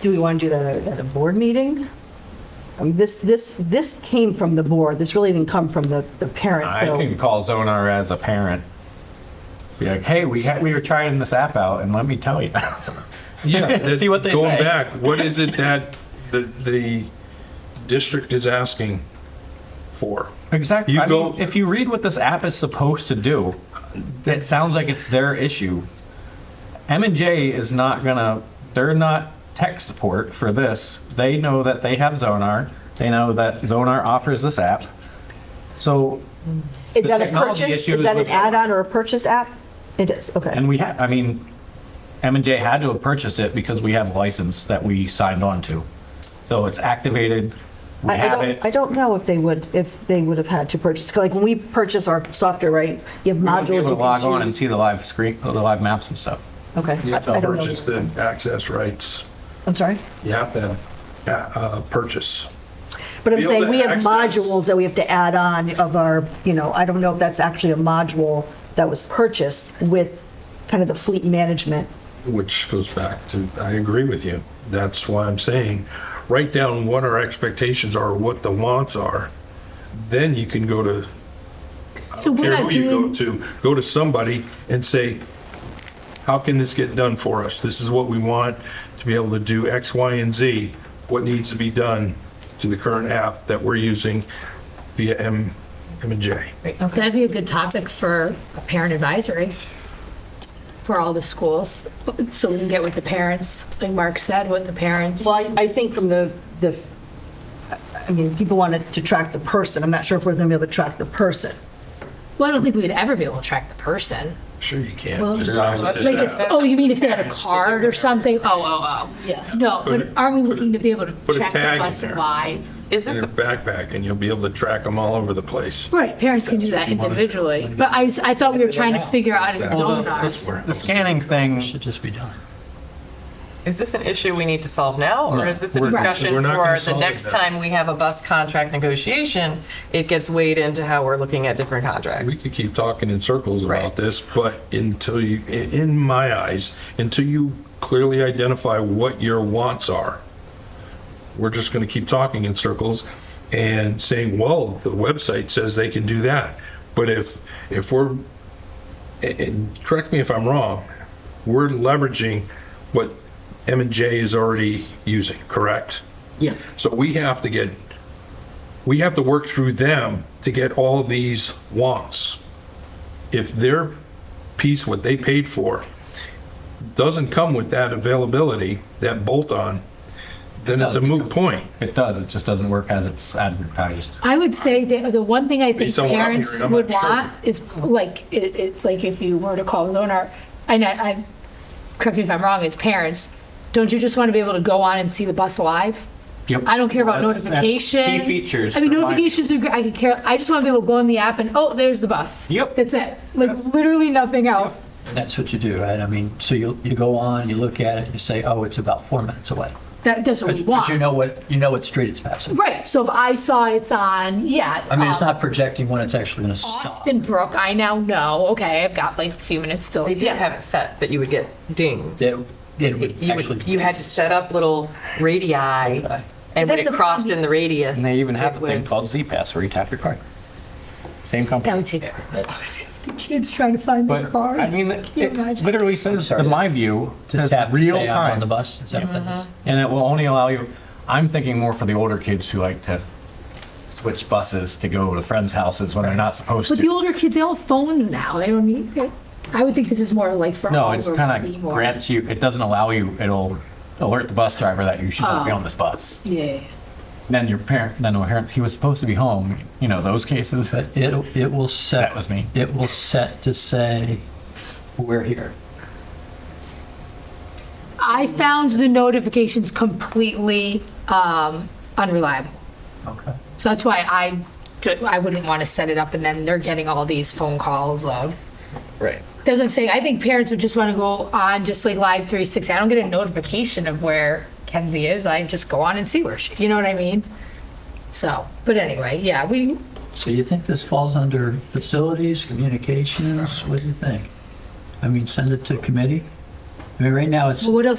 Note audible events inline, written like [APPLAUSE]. do we want to do that at a- at a board meeting? I mean, this, this, this came from the board. This really didn't come from the, the parents, I so. can call Zonar as a parent. Be like, hey, we had, we were trying this app out, and let me tell you. [LAUGHS] [LAUGHS] Yeah. that- See what they Going say. back, what is it that the, the district is asking for? Exactly. You I go- mean, if you read what this app is supposed to do, it sounds like it's their issue. M and J is not gonna. They're not tech support for this. They know that they have Zonar. They know that Zonar offers this app. So, Is the that a technology purchase? issue Is is that an with- add-on or a purchase app? It is, okay. and we had. I mean, M and J had to have purchased it because we have a license that we signed on to. So it's activated. We I- I have don't- it. I don't know if they would, if they would have had to purchase, 'cause like when we purchase our software, right? You have We modules. won't be able to you can log on and choose. see the live screen, the live maps and stuff. Okay. I- I don't know. Purchase the access rights. I'm sorry? You have to, uh, uh, purchase. But I'm Be able saying to we have access- modules that we have to add on of our, you know, I don't know if that's actually a module that was purchased with kind of the fleet management. Which goes back to, I agree with you. That's why I'm saying, write down what our expectations are, what the wants are. Then you can go to, So we're care not who you go doing, to, go to somebody and say, how can this get done for us? This is what we want to be able to do X, Y, and Z. What needs to be done to the current app that we're using via M, M and J? that'd be a good topic for a parent advisory for all the schools, so we can get with the parents, like Mark said, with the parents. Well, I- I think from the, the, I mean, people wanted to track the person. I'm not sure if we're going to be able to track the person. Well, I don't think we'd ever be able to track the person. Sure you can. Like, it's- oh, you mean if they had a card or something? Oh, oh, oh. Yeah. No, but Put a- are we looking to be able to a track the tag in bus there. live? Is in this, your backpack and you'll be able to track them all over the place. Right, parents can do that individually, but I, s- I thought we were trying to figure out in Zonar. The scanning thing, should just be done. is this an issue we need to solve now, or is this a We're- discussion we're not gonna for the solve it next now. time we have a bus contract negotiation? It gets weighed into how we're looking at different We contracts. could keep talking in circles about Right. this, but until you, i- in my eyes, until you clearly identify what your wants are, we're just going to keep talking in circles and saying, well, the website says they can do that. But if, if we're, a- and correct me if I'm wrong, we're leveraging what M and J is already using, correct? Yeah. So we have to get, we have to work through them to get all these wants. If their piece, what they paid for, doesn't come with that availability, that bolt-on, then it's a moot point. it does, it just doesn't work as it's advertised. I would say the, the one thing I think Based on what I'm parents hearing, I'm would not sure. want is like, it, it's like if you were to call Zonar, and I, I'm, correct me if I'm wrong, as parents, don't you just want to be able to go on and see the bus live? Yep. I don't care about That's- that's notification. Key features. I mean, for my- notifications are great. I could care. I just want to be able to go in the app and, oh, there's the bus. Yep. That's it. Like literally nothing else. And that's what you do, right? I mean, so you, you go on, you look at it, you say, oh, it's about four minutes away. That, that's what we Because want. you know what, you know what street it's passing. right. So if I saw it's on, yeah. I mean, it's um, not projecting when it's actually going to stop. Austin Brook, I now know. Okay, I've got like a few minutes still. They did have it set that you would get dings. It it It- would You actually. would- you had to set up little radii, and when That's it a crossed problem. in the radius. And they even it have a thing would- called Z Pass where you tap your card. Same That company. would take forever. The kids trying to find the But car. I mean, you it imagine? literally says, sorry. in my view, To says tap, to real say I'm on the time. bus, is that what that Mm-hmm. is? And it will only allow you, I'm thinking more for the older kids who like to switch buses to go to friends' houses when they're not supposed But the to. older kids, they all have phones now. They don't need it. I would think this is more like for No, all it's where we kind see of more. grants you, it doesn't allow you, it'll alert the bus driver that you should not Oh. be on this bus. Yeah. Then your parent, then the parent, he was supposed to be home, you know, those cases. But it'll, it will set. That was me. It will set to say, we're here. I found the notifications completely um, unreliable. Okay. So that's why I, ju- I wouldn't want to set it up and then they're getting all these phone calls of. Right. That's what I'm saying. I think parents would just want to go on just like Live 360. I don't get a notification of where Kenzie is. I just go on and see where she, you know what I mean? So, but anyway, yeah, we, So you think this falls under facilities, communications? What do you think? I mean, send it to committee? I mean, right now it's. what else